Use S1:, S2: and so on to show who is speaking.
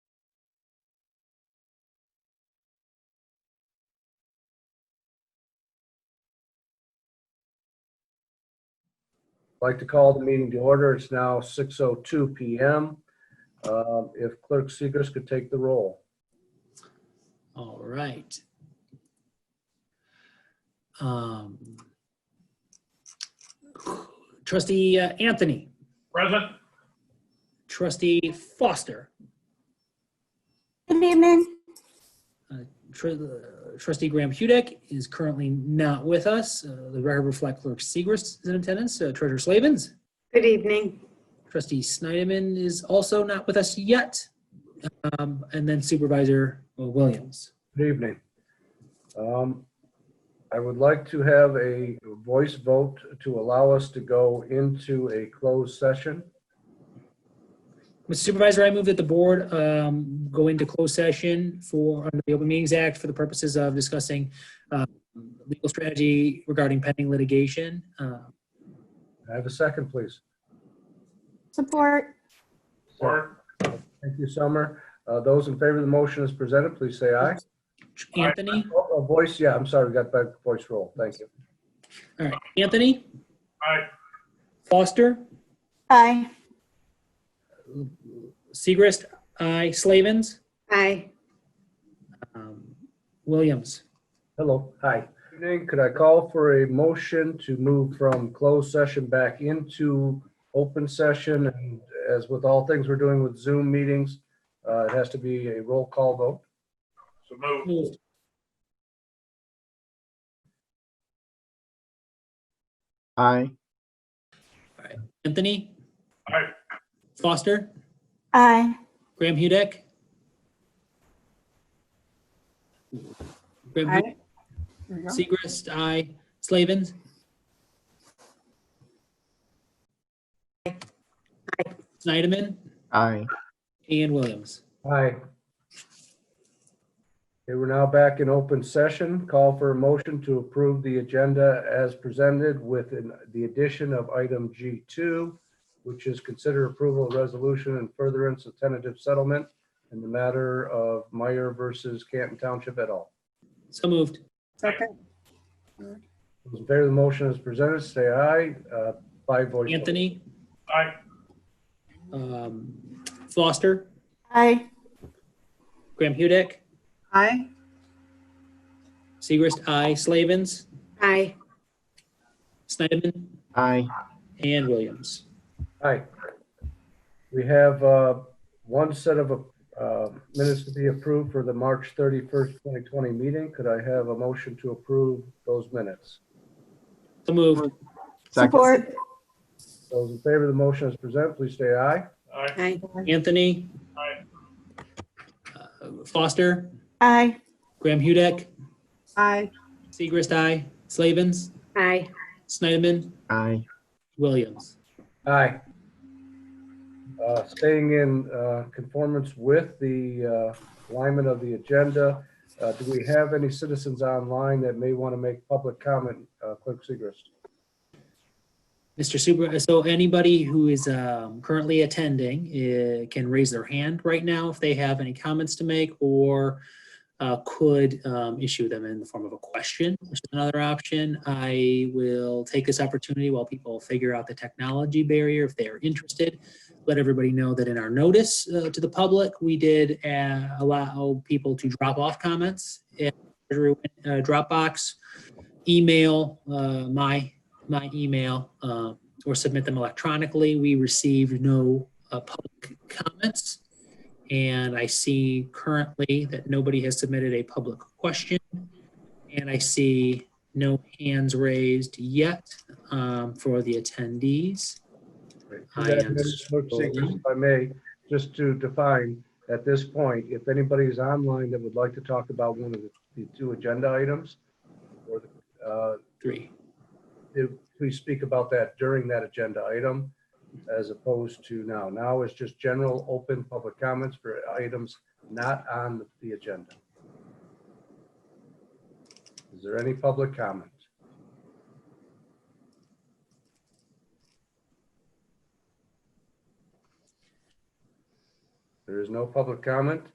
S1: I'd Like to call the meeting to order. It's now 6:02 PM. Um, If Clerk Segris could take the roll.
S2: All right. Um, Trustee uh, Anthony,
S3: Present.
S2: trustee Foster,
S4: Good evening.
S2: tr- uh, trustee Graham Hudek is currently not with us. Uh, The record reflect clerk Segris is in attendance, Uh, treasurer Slavens,
S5: Good evening.
S2: trustee Snyderman is also not with us yet. Um, And then supervisor uh, Williams.
S1: Good evening. Um, I would like to have a voice vote to allow us to go into a closed session.
S2: Mr. Supervisor, I move that the board um, go into closed session for, under the Open Meetings Act, for the purposes of discussing um, legal strategy regarding pending litigation. Uh,
S1: Can I Have a second, please.
S4: Support.
S3: Or
S1: Thank you, Summer. Uh, Those in favor of the motion as presented, please say aye.
S2: Anthony,
S1: Oh, oh, Voice, yeah, I'm sorry, we got back to voice roll. Thank you.
S2: all right, Anthony,
S3: I
S2: Foster,
S4: Aye.
S2: Segrist, aye, Slavens,
S5: Aye.
S2: um, Williams.
S1: Hello, hi. Evening, could I call for a motion to move from closed session back into open session? And as with all things we're doing with Zoom meetings, uh, it has to be a roll call vote.
S3: So move.
S2: Moved.
S6: Aye.
S2: Anthony,
S3: I
S2: Foster,
S4: Aye.
S2: Graham Hudek. Graham
S5: Aye.
S2: Hudek, Segrist, aye, Slavens, Snyderman,
S6: Aye.
S2: and Williams.
S1: Aye. Okay, we're now back in open session. Call for a motion to approve the agenda as presented with an- the addition of item G2, which is consider approval of resolution and furtherance of tentative settlement in the matter of Meyer versus Canton Township et al.
S2: So moved.
S5: Second.
S1: Those in favor of the motion as presented, say aye. Uh, By voice. vote.
S2: Anthony,
S3: I
S2: um, Foster,
S4: Aye.
S2: Graham Hudek,
S5: Aye.
S2: Segrist, aye, Slavens,
S5: Aye.
S2: Snyderman,
S6: Aye.
S2: and Williams.
S1: Hi. We have uh, one set of uh, minutes to be approved for the March 31st, 2020 meeting. Could I have a motion to approve those minutes?
S2: So moved.
S6: Second.
S4: Support.
S1: Those in favor of the motion as presented, please say aye.
S3: I
S5: Aye.
S2: Anthony,
S3: I
S2: uh, Foster,
S4: Aye.
S2: Graham Hudek,
S5: Aye.
S2: Segrist, aye, Slavens,
S5: Aye.
S2: Snyderman,
S6: Aye.
S2: Williams.
S1: Aye. Uh, Staying in uh, conformance with the uh, alignment of the agenda, uh, do we have any citizens online that may want to make public comment? Uh, Clerk Segrist.
S2: Mr. Super, so anybody who is um, currently attending uh, can raise their hand right now if they have any comments to make or uh, could um, issue them in the form of a question, which is another option. I will take this opportunity while people figure out the technology barrier if they are interested. Let everybody know that in our notice uh, to the public, we did uh, allow people to drop off comments at uh, Dropbox, email, uh, my my email uh, or submit them electronically. We received no uh, public comments. And I see currently that nobody has submitted a public question. And I see no hands raised yet um, for the attendees. I am
S1: Clerk Segrist, If I may, just to define at this point, if anybody is online that would like to talk about one of the- the two agenda items, or, the, uh,
S2: Three.
S1: if- please speak about that during that agenda item as opposed to now. Now is just general open public comments for items not on the agenda. Is there any public comment? There is no public comment.